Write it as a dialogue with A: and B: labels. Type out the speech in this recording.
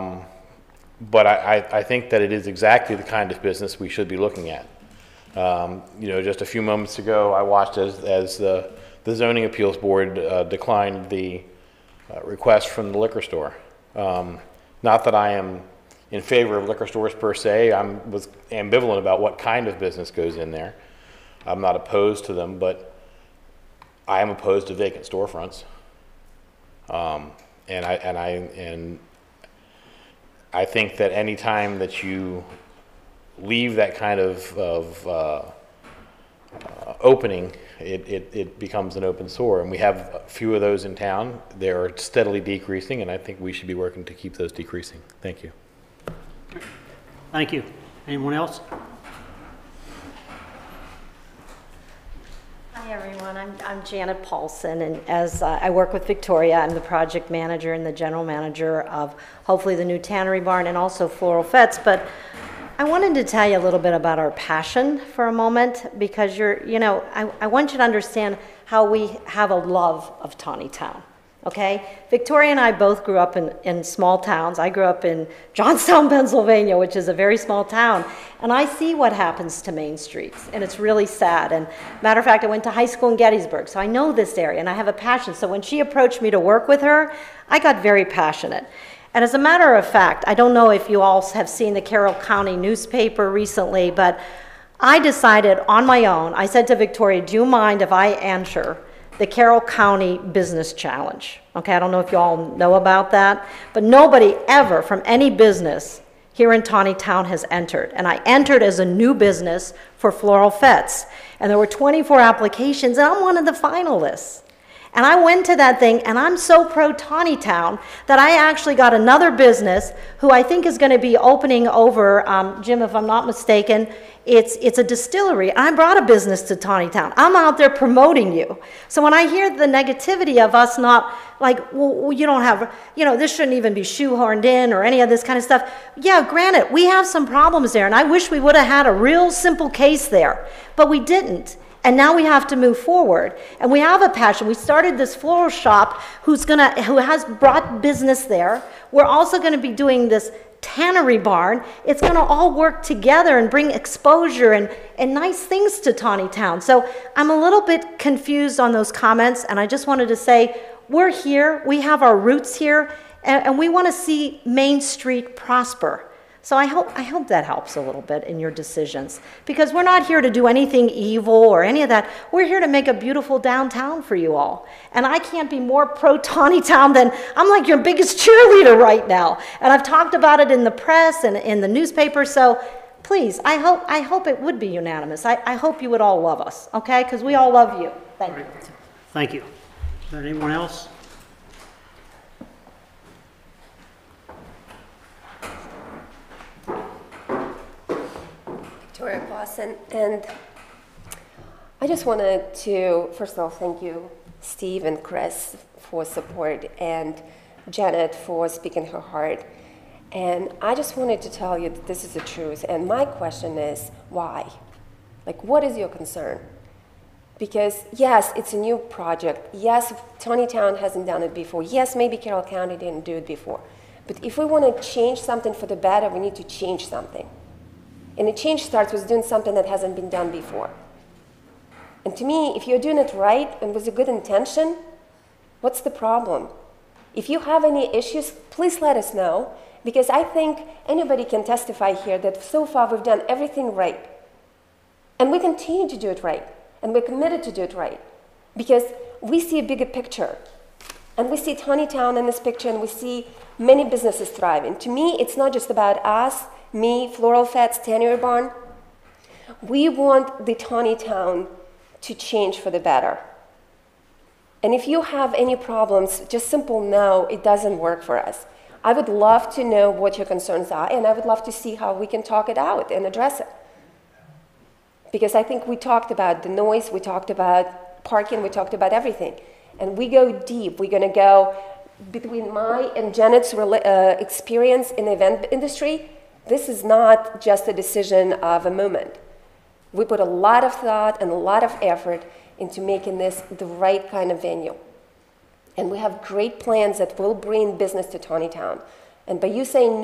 A: But I, I, I think that it is exactly the kind of business we should be looking at. Um, you know, just a few moments ago, I watched as, as the, the zoning appeals board uh, declined the uh, request from the liquor store. Um, not that I am in favor of liquor stores per se, I am was ambivalent about what kind of business goes in there. I'm not opposed to them, but I am opposed to vacant storefronts. Um, and I, and I, and I think that any time that you leave that kind of, of uh, uh, opening, it, it, it becomes an open sore. And we have a few of those in town. They're steadily decreasing, and I think we should be working to keep those decreasing. Thank you.
B: Thank you. Anyone else?
C: Hi, everyone. I'm I'm Janet Paulson, and as uh, I work with Victoria, I'm the project manager and the general manager of hopefully the new Tannery Barn and also Floral Fets. But I wanted to tell you a little bit about our passion for a moment because you're, you know, I I want you to understand how we have a love of Tawny Town okay? Victoria and I both grew up in, in small towns. I grew up in Johnstown, Pennsylvania, which is a very small town. And I see what happens to main streets, and it's really sad. And matter of fact, I went to high school in Gettysburg, so I know this area and I have a passion. So when she approached me to work with her, I got very passionate. And as a matter of fact, I don't know if you all have seen the Carroll County newspaper recently, but I decided on my own, I said to Victoria, do you mind if I answer the Carroll County Business Challenge. Okay, I don't know if you all know about that, but nobody ever from any business here in Tawny Town has entered. And I entered as a new business for Floral Fets, and there were 24 applications, and I'm one of the finalists. And I went to that thing, and I'm so pro Tawny Town that I actually got another business who I think is going to be opening over, um, Jim, if I'm not mistaken. It's, it's a distillery. I brought a business to Tawny Town. I'm out there promoting you. So when I hear the negativity of us not, like, well, you don't have, you know, this shouldn't even be shoehorned in or any of this kind of stuff. Yeah, granted, we have some problems there, and I wish we would have had a real simple case there, but we didn't. And now we have to move forward. And we have a passion. We started this floral shop who's gonna, who has brought business there. We're also gonna be doing this tannery barn. It's gonna all work together and bring exposure and, and nice things to Tawny Town. So I'm a little bit confused on those comments, and I just wanted to say, we're here, we have our roots here, and, and we wanna see Main Street prosper. So I hope, I hope that helps a little bit in your decisions because we're not here to do anything evil or any of that. We're here to make a beautiful downtown for you all. And I can't be more pro Tawny Town than I'm like your biggest cheerleader right now. And I've talked about it in the press and in the newspaper. So please, I hope, I hope it would be unanimous. I, I hope you would all love us, okay? Because we all love you. Thank you.
B: Thank you. Is there anyone else?
D: Victoria Clausen, and I just wanted to, first of all, thank you, Steve and Chris, for support, and Janet for speaking her heart. And I just wanted to tell you that this is the truth. And my question is, why? Like, what is your concern? Because yes, it's a new project. Yes, Tony Town hasn't done it before. Yes, maybe Carroll County didn't do it before. But if we want to change something for the better, we need to change something. And a change starts with doing something that hasn't been done before. And to me, if you're doing it right and with a good intention, what's the problem? If you have any issues, please let us know, because I think anybody can testify here that so far we've done everything right. And we continue to do it right, and we're committed to do it right, because we see a bigger picture. And we see Tawny Town in this picture, and we see many businesses thriving. To me, it's not just about us, me, Floral Fats, Tanner Barn. We want the Tawny Town to change for the better. And if you have any problems, just simple no, it doesn't work for us. I would love to know what your concerns are, and I would love to see how we can talk it out and address it. Because I think we talked about the noise, we talked about parking, we talked about everything. And we go deep. We're going to go between my and Janet's rela- uh, experience in the event industry this is not just a decision of a moment. We put a lot of thought and a lot of effort into making this the right kind of venue. And we have great plans that will bring business to Tawny Town. And by you saying no,